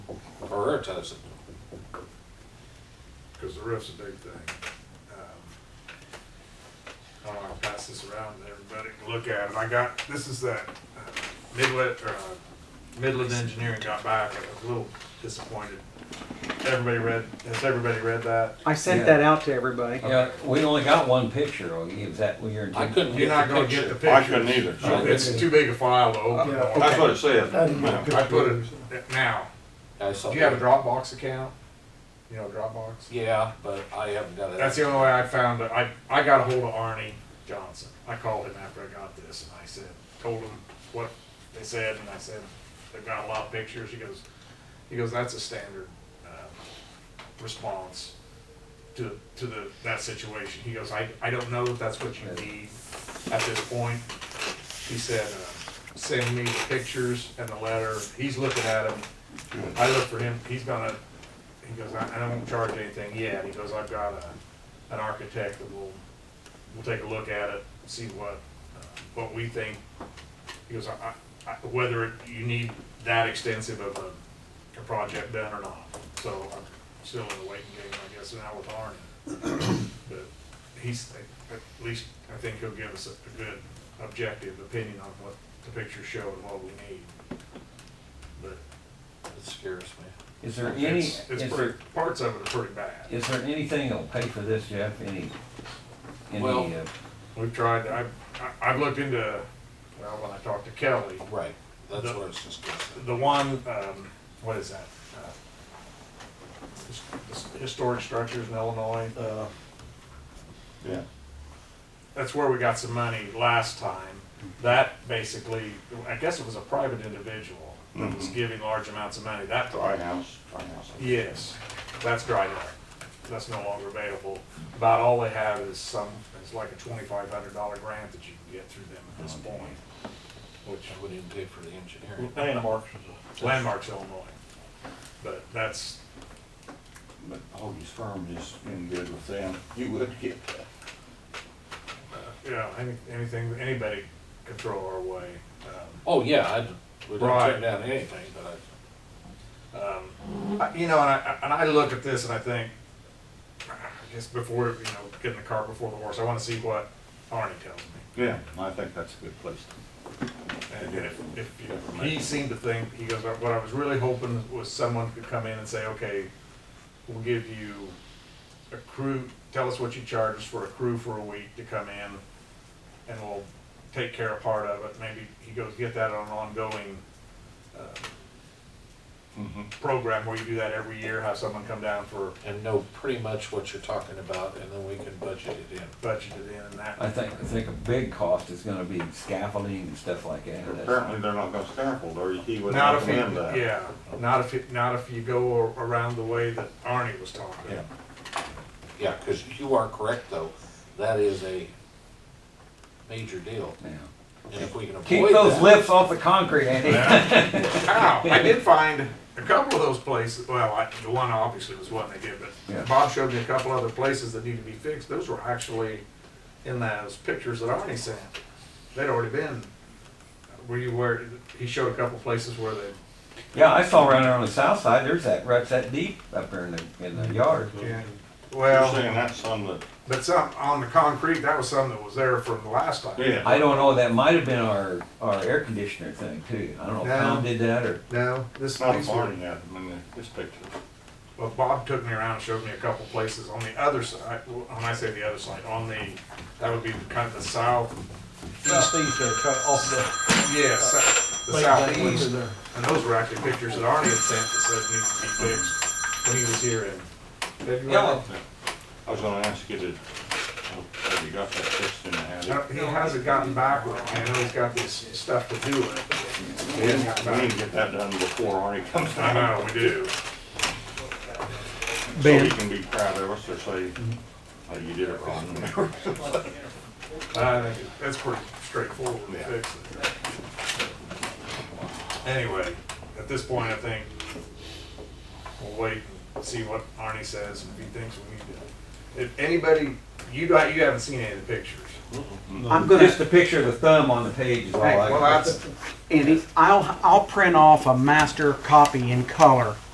prioritize it. because the roof's a big thing. Um, I don't want to pass this around to everybody to look at it. I got, this is that uh, Midland, or uh, Midland Engineering got back, and I was a little disappointed. Everybody read, has everybody read that? I sent Yeah. that out to everybody. Yeah, we only got one picture, or is that what you're? I couldn't get You're not the gonna get picture. the picture. I couldn't either. Oh, It's too big a file to open. Yeah. I That's what it said. I didn't get a ma'am. put- I put picture. it now. I saw Do you have a that. Dropbox account? You know Dropbox? Yeah, but I haven't got it. That's the only way I found that I, I got a hold of Arnie Johnson. I called him after I got this and I said, told him what they said and I said, they've got a lot of pictures. He goes, he goes, that's a standard um, response to, to the, that situation. He goes, I, I don't know if that's what you need at this point. He said, uh, send me the pictures and the letter. He's looking at them. I look for him, he's gonna, he goes, I, I don't charge anything yet, he goes, I've got a, an architect that will, will take a look at it, see what, uh, what we think. He goes, I, I, I- whether you need that extensive of a, a project done or not, so I'm still in the waiting game, I guess, now with Arnie. But he's, at least, I think he'll give us a, a good objective opinion on what the pictures show and what we need. But It scares me. Is there any, is it's, it's there, pretty, parts of it are pretty bad. is there anything that'll pay for this, Jeff? Any, any, Well- uh, We've tried, I've, I- I've looked into, well, when I talked to Kelly, Right, that's The- what it's discussing. the one, um, what is that? Uh, his- his- Historic structures in Illinois, Uh, Yeah. that's where we got some money last time. That basically, I guess it was a private individual that was Mhm. giving large amounts of money. That Dry house, dry house. Yes, that's dried up. That's no longer available. About all they have is some, it's like a twenty-five hundred dollar grant that you can get through them at this point, I which wouldn't even pay for the engineering. landmarks is a. landmarks Illinois. But that's, But Hoagie's firm is in good with them. You would get that. uh, you know, any- anything, anybody could throw our way. Um, Oh, yeah, I, we didn't Right. turn down anything, but um, I- You know, and I, and I look at this and I think, I guess before, you know, getting the cart before the horse, I wanna see what Arnie tells me. Yeah, I think that's a good place to. And if, if, you- he seemed to think, he goes, what I was really hoping was someone could come in and say, okay, we'll give you a crew, tell us what you charge us for a crew for a week to come in, and we'll take care of part of it, maybe, he goes, get that on an ongoing, uh, Mhm. program where you do that every year, have someone come down for I, and know pretty much what you're talking about, and then we can budget it in. budgeted in and I that. think, I think a big cost is gonna be scaffolding and stuff like that. That's- Apparently, they're not gonna scaffold, or he wouldn't Not if you, recommend that. yeah, not if, you- not if you go around the way that Arnie was talking. Yeah. Yeah, because you are correct, though, that is a major deal, yeah. and if we can avoid Keep those that- lifts off the concrete, Andy. Ow, I did find a couple of those places, well, I, the one obviously was one they did, Yeah. but Bob showed me a couple other places that need to be fixed. Those were actually in those pictures that Arnie sent. They'd already been, were you where, he showed a couple places where they, Yeah, I saw around there on the south side, there's that, ruts that deep up there in the, in the yard. You're well, saying that's on the, but some, on the concrete, that was some that was there from the last time. yeah. I don't know, that might have been our, our air conditioner thing too. I don't know if Tom did that or, No, this, It's not a these were, barn yet, I mean, this picture. well, Bob took me around and showed me a couple places on the other side, when I say the other side, on the, that would be kind of the south, These things are uh, cut off the. yes, the late that winter southeast. there. And those were actually pictures that Arnie had sent that said needed to be fixed when he was here in February. Yeah. I was gonna ask you to, oh, have you got that fixed in the No, attic? He hasn't gotten back with me. I know he's got this stuff to do with We need to get that done before Arnie comes it. I down. know, we do. So you can be proud of us or say, oh, you did it wrong. I think that's pretty straightforward to Yeah. fix it. Anyway, at this point, I think we'll wait and see what Arnie says and if he thinks we need to. If anybody, you got, you haven't seen any of the pictures. I'm gonna, just a picture of the thumb on the page is all I Hey, got. Well, that's, Andy, I'll, I'll print off a master copy in color